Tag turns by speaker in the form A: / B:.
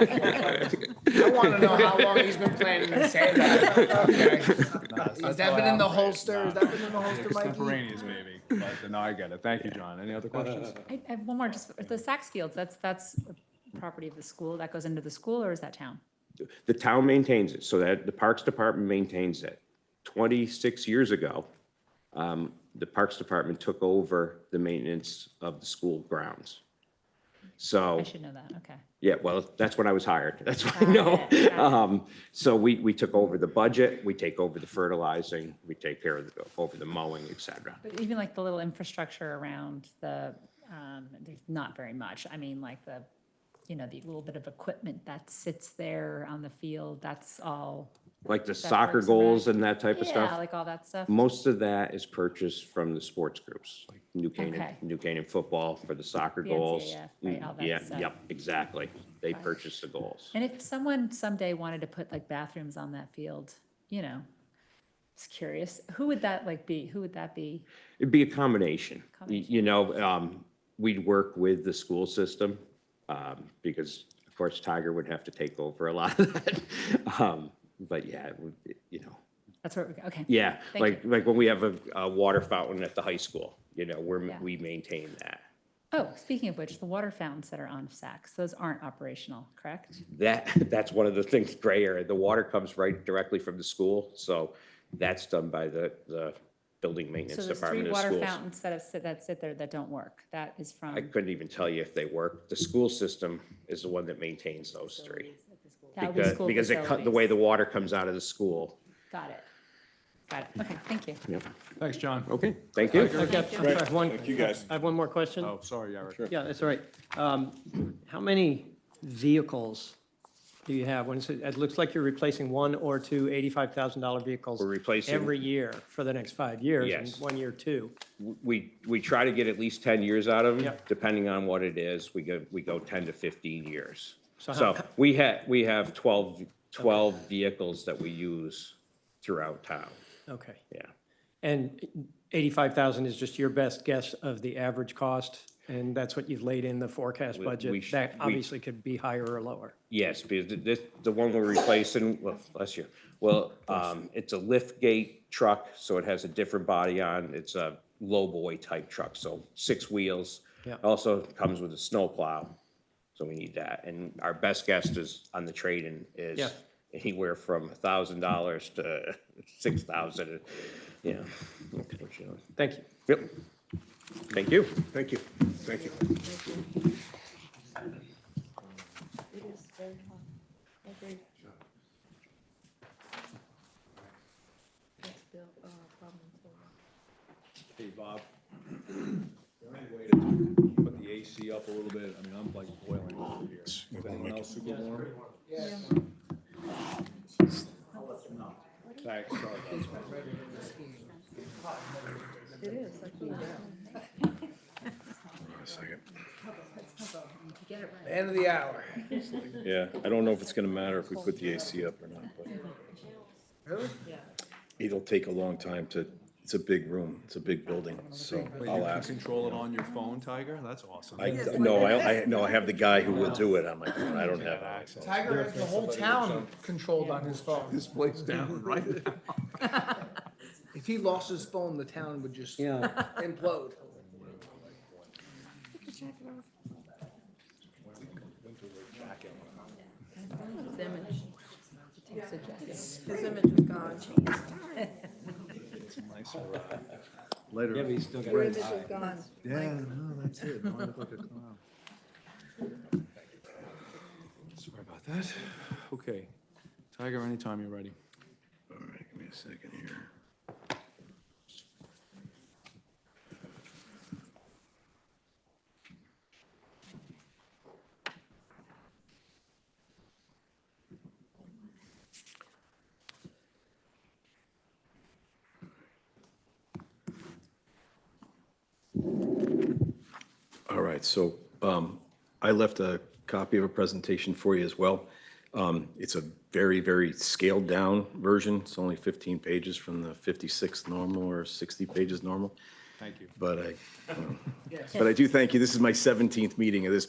A: I want to know how long he's been planning to say that. Okay. Has that been in the E? holster? Has that been in the holster, Mikey?
B: Extemporaneous, maybe, but no, I get it. Thank you, John. Any other questions?
C: I I have one more, just the Saks Fields, that's, that's a property of the school, that goes into the school or is that town?
D: The town maintains it, so that, the Parks Department maintains it. Twenty-six years ago, um, the Parks Department took over the maintenance of the school grounds. So.
C: I should know that, okay.
D: Yeah, well, that's when I was hired. That's what I know.
C: Got it, got it.
D: Um, so we, we took over the budget, we take over the fertilizing, we take care of, the over the mowing, et cetera.
C: But even like the little infrastructure around the, um, there's not very much. I mean, like the, you know, the little bit of equipment that sits there on the field, that's all.
D: Like the soccer
C: works and
D: goals
C: rec.
D: and that type of
C: Yeah,
D: stuff.
C: like all that stuff.
D: Most of that is purchased from the sports groups, like New Canaan,
C: Okay.
D: New Canaan football for the soccer
C: The
D: goals.
C: NCAA, right, all
D: Mm,
C: that
D: Yeah,
C: stuff.
D: yep, exactly. They purchase the goals.
C: And if someone someday wanted to put like bathrooms on that field, you know, just curious, who would that like be? Who would that be?
D: It'd be a combination. Y-
C: Combination.
D: You know, um, we'd work with the school system, um, because of course Tiger would have to take over a lot of that. Um, But yeah, it would, it- you know,
C: That's where we go, okay.
D: yeah,
C: Thank
D: like, like when we have a, a water fountain at the high school, you know, we're,
C: Yeah.
D: we maintain that.
C: Oh, speaking of which, the water fountains that are on Saks, those aren't operational, correct?
D: That, that's one of the things gray area. The water comes right directly from the school, so that's done by the, the building
C: So
D: maintenance
C: there's three
D: department of
C: water
D: schools.
C: fountains that have, sit- that sit there that don't work. That is from.
D: I couldn't even tell you if they work. The school system is the one that maintains those three.
C: that would be
D: Because,
C: school
D: because it cut, the
C: facilities.
D: way the water comes out of the school.
C: Got it. Got it. Okay, thank you.
B: Thanks, John.
D: Okay. Thank you.
E: I've got, I have one.
F: Thank you, guys.
E: I have one more question.
B: Oh, sorry, Eric.
E: Yeah, that's all right. Um, How many vehicles do you have? When it's- it looks like you're replacing one or two $85,000 vehicles.
D: We're replacing-
E: Every year for the next five years. and
D: Yes.
E: One year, two.
D: We, we try to get at least ten years out of them,
E: Yep.
D: depending on what it is. We go, we go ten to fifteen years.
E: So
D: So
E: how-
D: we had, we have 12 12 vehicles that we use throughout town.
E: Okay.
D: Yeah.
E: And 85,000 is just your best guess of the average cost? And that's what you've laid in the forecast
D: we
E: budget?
D: sh-
E: That
D: we-
E: obviously could be higher or lower.
D: Yes, because th- this, the one we're replacing, well, bless you. Well, um, it's a lift gate truck, so it has a different body on. It's a lowboy type truck, so six wheels.
E: Yeah.
D: Also comes with a snowplow, so we need that. And our best guess is on the trade-in
E: Yeah.
D: is anywhere from a thousand dollars to six thousand, you know. unfortunately.
E: Thank you.
D: Yep. Thank you.
F: Thank you. Thank you.
B: Hey, Bob. Is there any way to Put the AC up a little bit. I mean, I'm like boiling over here. Is anyone else super warm? Thanks, sorry about that.
A: End of the hour.
F: Yeah, I don't know if it's gonna matter if we put the AC up or not, but
A: Really?
F: it'll take a long time to, it's a big room, it's a big building, so
B: Wait, you
F: I'll
B: can
F: ask.
B: control it on your phone, Tiger? That's awesome.
F: I, no, I, I, no, I have the guy who will do it on my phone, I don't have access.
A: Tiger has the whole town
F: uh,
A: controlled on his phone.
B: Place down, right?
A: If he lost his phone, the town would just
E: Yeah.
A: implode.
G: His image. His image is gone.
E: Yeah, but you still got
G: Your image is gone.
B: Yeah, no, that's it. No, I look like a clown. Sorry about that. Okay. Tiger, anytime you're ready.
F: All right, give me a second here. All right, so um, I left a copy of a presentation for you as well. Um, It's a very, very scaled-down version. It's only 15 pages from the 56 normal or 60 pages normal.
B: Thank you.
F: But I, but I do thank you. This is my 17th meeting of this